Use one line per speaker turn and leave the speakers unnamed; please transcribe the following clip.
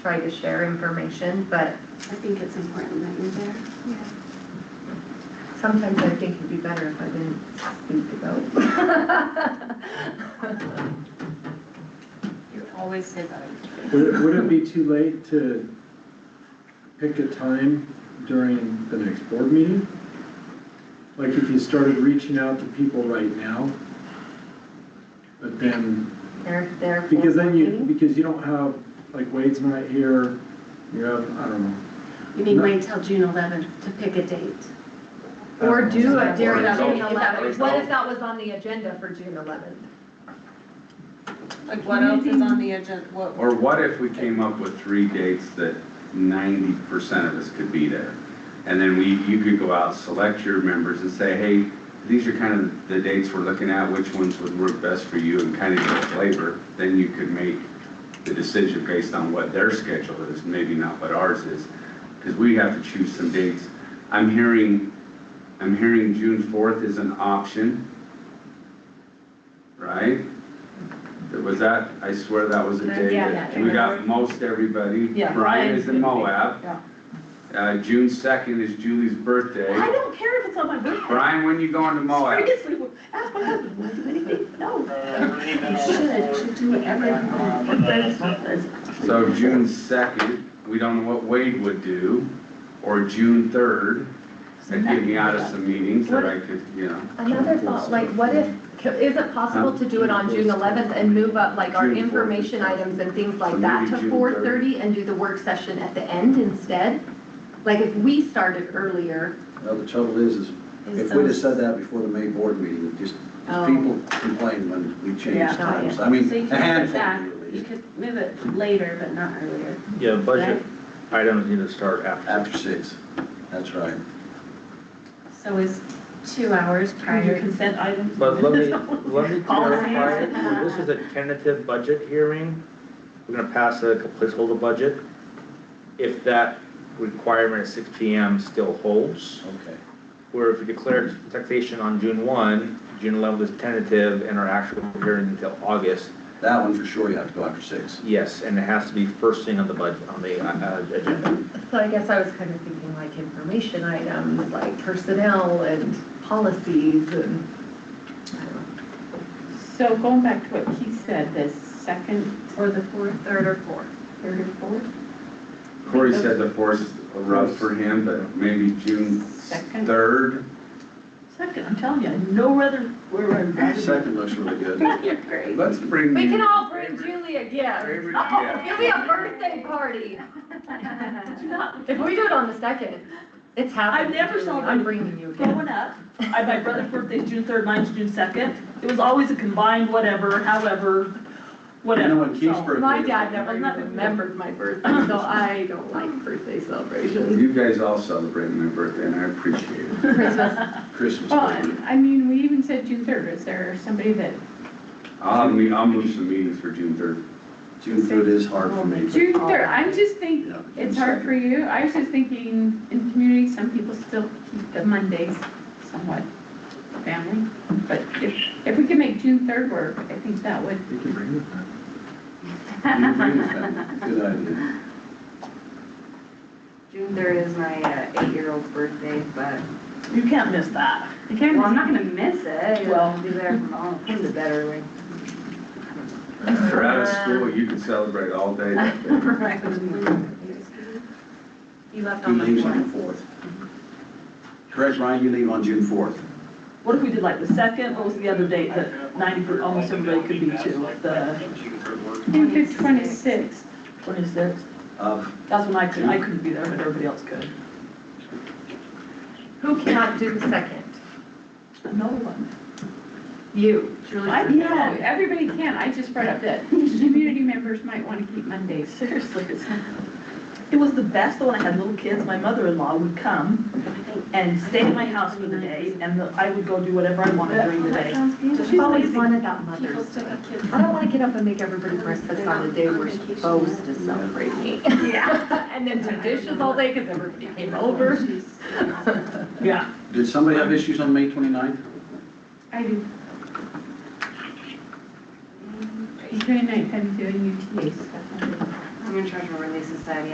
tried to share information, but
I think it's important that you're there.
sometimes I think it'd be better if I didn't speak about.
You always say that.
Would it, would it be too late to pick a time during the next board meeting? Like if you started reaching out to people right now? But then,
They're, they're.
because then you, because you don't have, like Wade's not here, you have, I don't know.
You mean wait till June eleventh to pick a date?
Or do it during
Or
June
result.
eleventh. What if that was on the agenda for June eleventh?
Like what else is on the agenda, what?
Or what if we came up with three dates that ninety percent of us could be there? And then we, you could go out, select your members and say, hey, these are kind of the dates we're looking at, which ones would work best for you and kind of get a flavor. Then you could make the decision based on what their schedule is, maybe not what ours is. Because we have to choose some dates. I'm hearing, I'm hearing June fourth is an option. Right? Was that, I swear that was a day
Yeah,
Uh, that
yeah.
we got most everybody.
Yeah,
Brian
Brian's
is
gonna
in
be-
Moab.
yeah.
Uh, June second is Julie's birthday.
I don't care if it's on my birthday.
Brian, when you going to Moab?
Seriously, ask my husband, will I do anything? No.
You should, you do it every month.
So June second, we don't know what Wade would do, or June third, that'd get me out of some meetings that I could, you know.
Another thought, like what if, is it possible to do it on June eleventh and move up like our
June fourth.
information items and things
So
like that
maybe
to
June
four thirty and do the work session at the end instead? Like if we started earlier,
Well, the trouble is, is if we'd have said that before the May board meeting, just,
Oh.
just people complain when we
Yeah.
change times. I
So you
mean,
could
a
put that,
handful at
you
least,
could move it later, but not earlier.
Yeah, budget items need to start after.
after six, that's right.
So is two hours
Your
prior,
consent items.
But let me, let me
Policy.
clarify, this is a tentative budget hearing. We're gonna pass a placeholder budget. If that requirement at six P M still holds,
Okay.
where if we declare taxation on June one, June eleventh is tentative and our actual hearing until August,
That one for sure you have to go after six.
yes, and it has to be first thing on the budget, on the, uh, uh, agenda.
so I guess I was kind of thinking like information items, like personnel and policies and. I don't know.
So going back to what he said, the second or the fourth,
Third or fourth.
third or fourth,
Corey said the fourth is rough for him, but maybe June
Second.
third.
second, I'm telling you, no other, we're in.
Second looks really good.
You're great.
Let's bring.
We can
you-
all bring Julie a gift.
Favorite
Oh,
gift.
It'll be a birthday party. If we do it on the second, it's happening.
I've never
Julie. I'm
celebrated
bringing you a gift.
Growing up, I, my brother's birthday's June third, mine's June second. It was always a combined whatever, however,
You
whatever.
know when Keith's
so.
birthday?
My
is?
dad never even remembered my birthday, so I don't like birthday celebrations.
You guys all celebrate my birthday and I appreciate it.
Christmas,
Christmas.
Well,
birthday.
and I mean, we even said June third, is there somebody that,
I'll, me- I'll move some meetings for June third.
June third is hard for me.
June third, I'm just thinking,
Yeah, June
it's hard for you, I was just thinking, in community, some people still keep the Mondays somewhat family, but if, if we could make June third work, I think that would,
You can bring it back.
second. You agree with that? Good idea.
June third is my uh, eight-year-old's birthday, but
You can't miss that.
again,
Well, I'm not gonna miss it,
Well-
it'll be there from home, it's a better way.
If you're out of school, you can celebrate all day that day.
You left
He
on the
leaves
floor.
on the fourth. Correct, Ryan, you leave on June fourth.
What if we did like the second, what was the other date that ninety, per- almost everybody could be to, the
I think the twenty-sixth,
twenty-sixth?
Uh,
That's when I could, I couldn't be there, but everybody else could.
who cannot do the second?
No one.
You, Julie.
I, no, everybody can, I just brought up that community members might wanna keep Mondays.
Seriously, it's, it was the best, though, when I had little kids, my mother-in-law would come and stay at my house for the day, and the- I would go do whatever I wanted during the day.
Just always wanted that mother's day. I don't wanna get up and make everybody breakfast on the day we're supposed to celebrate me. Yeah. And then do dishes all day, cause everybody came over.
Yeah.
Did somebody have issues on May 29th?
I do. Twenty-ninth, I'm doing UTA stuff.
New Treasure Release Society